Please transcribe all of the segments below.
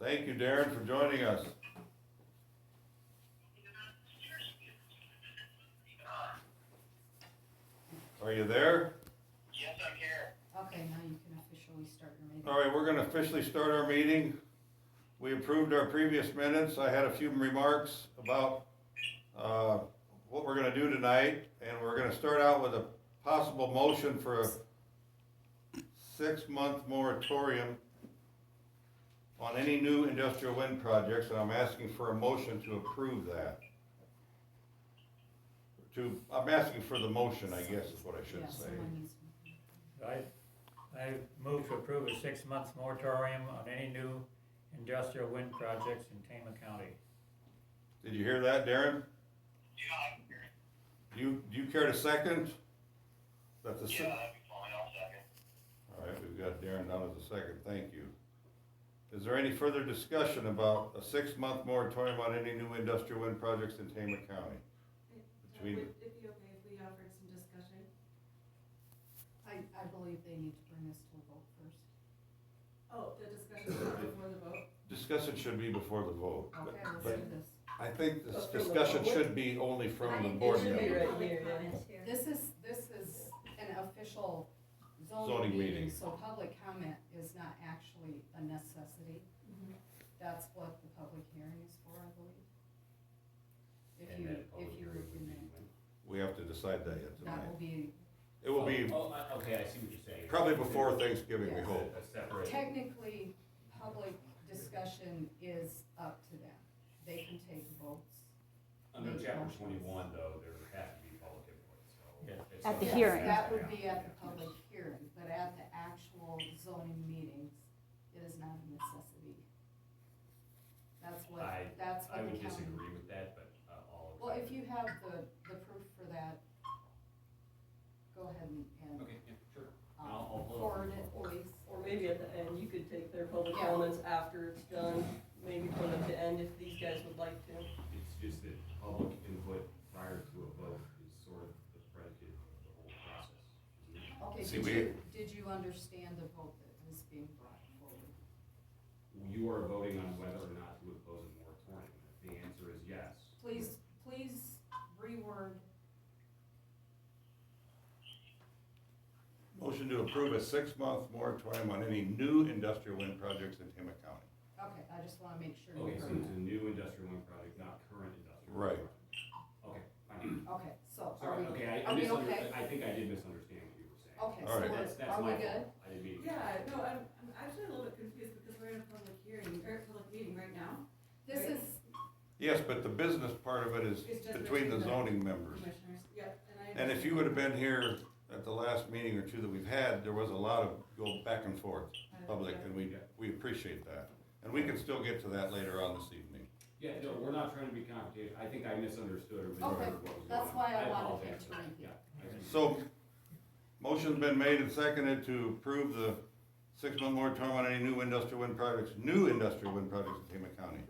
Thank you, Darren, for joining us. Are you there? Yes, I'm here. Okay, now you can officially start your meeting. All right, we're gonna officially start our meeting. We approved our previous minutes. I had a few remarks about, uh, what we're gonna do tonight. And we're gonna start out with a possible motion for a six-month moratorium on any new industrial wind projects, and I'm asking for a motion to approve that. To, I'm asking for the motion, I guess is what I Yeah, should say. someone needs- I, I move to approve a six-month moratorium on any new industrial wind projects in Tama County. Did you hear that, Darren? Yeah, I'm here. Do you, do you care to second? That the, se- Yeah, that'd be fine. I'll second. all right, we've got Darren down as a second, thank you. Is there any further discussion about a six-month moratorium on any new industrial wind projects in Tama County? Between- Would it be okay if we offered some discussion? I, I believe they need to bring this to a vote first. Oh, the discussion is not before the vote? Discussion should be before the vote. but- Okay, let's but do this. I think this But from the discussion public? should be only from the I- it board should members. be right Public here, yeah. comment here. This is, this is an official Zoning zoning meeting. meeting, so public comment is not actually a necessity. Mm-hmm. Mhm. That's what the public hearing is for, I believe. If And you, that public if you, hearing would be can- when? We have to decide that yet that tonight. will be, It will be Oh, oh, uh, okay, I see what you're saying. probably before Thanksgiving, we A hope. separate. technically, public discussion is up to them. They can take votes. Under chapter twenty-one, though, there has to be public input, so. it's At the something- hearing. That would be at the public hearing, but at the actual zoning meetings, it is not a necessity. That's what, I- that's I what the would county. disagree with that, but uh, all. Well, if you have the, the proof for that, go ahead and, and, Okay, yeah, sure. I'll- I'll um, pull it. forward it, please. Or maybe at the end, you could take their public Yeah. comments after it's done, maybe put it at the end if these guys would like to. It's just that public input prior to a vote is sort of the predicate of the whole process. Okay, See, did we- you, did you understand the vote that was being brought forward? You are voting on whether or not to impose a moratorium. If the answer is yes, Please, please reword, Motion to approve a six-month moratorium on any new industrial wind projects in Tama County. okay, I just wanna make sure you okay, so heard it's that. a new industrial wind project, not current industrial. Right. project. Okay, fine. Okay, so are Sorry, we, okay, I- I are we misunderstood, okay? I think I did misunderstand what you were saying. okay, All so right. we're- That's, that's are we my good? fault. I didn't mean. to- Yeah, no, I'm, I'm actually a little bit confused because we're in a public hearing, or a public meeting right now. This Right. is, Yes, but the business part of it is It's just between the between the- zoning members. Commissioners, yep, and I. And if you would have been here at the last meeting or two that we've had, there was a lot of go back and forth, public, and we, we appreciate that. And we can still get to that later on this evening. Yeah, no, we're not trying to be complicated. I think I misunderstood or Okay, misheard what was going on. that's why I wanted apologize you to for that. repeat. Yeah, I see. So, motion's been made and seconded to approve the six-month moratorium on any new industrial wind projects, new industrial wind projects in Tama County.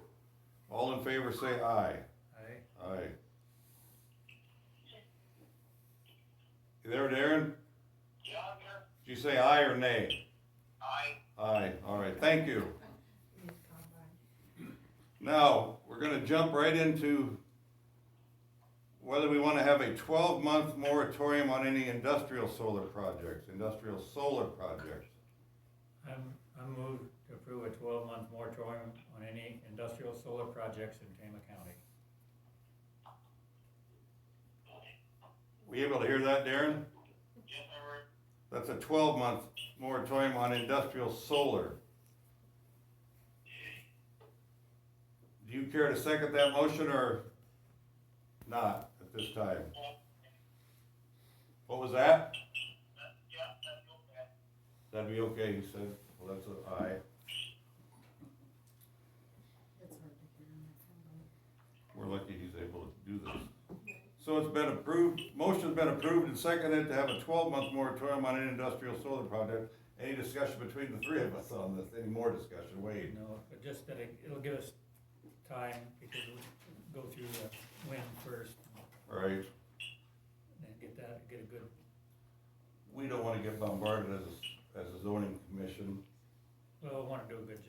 All in favor, say aye. Aye. Aye. You there, Darren? Yeah, I'm here. Did you say aye or nay? I, Aye, all right, thank you. Now, we're gonna jump right into whether we wanna have a twelve-month moratorium on any industrial solar projects, industrial solar projects. I'm, I move to approve a twelve-month moratorium on any industrial solar projects in Tama County. Were you able to hear that, Darren? yes, I heard. That's a twelve-month moratorium on industrial solar. Do you care to second that motion or not at this time? What was that? Yeah, that's okay. That'd be okay, he said. Well, that's an aye. it's hard to hear in that kind of. We're lucky he's able to do this. So it's been approved, motion's been approved and seconded to have a twelve-month moratorium on any industrial solar project. Any discussion between the three of us on this? Any more discussion? You Wade? know, but just that it, it'll give us time because we'll go through the wind first All right. and then get that, get a good, We don't wanna get bombarded as, a- as a zoning commission. well, I wanna do a good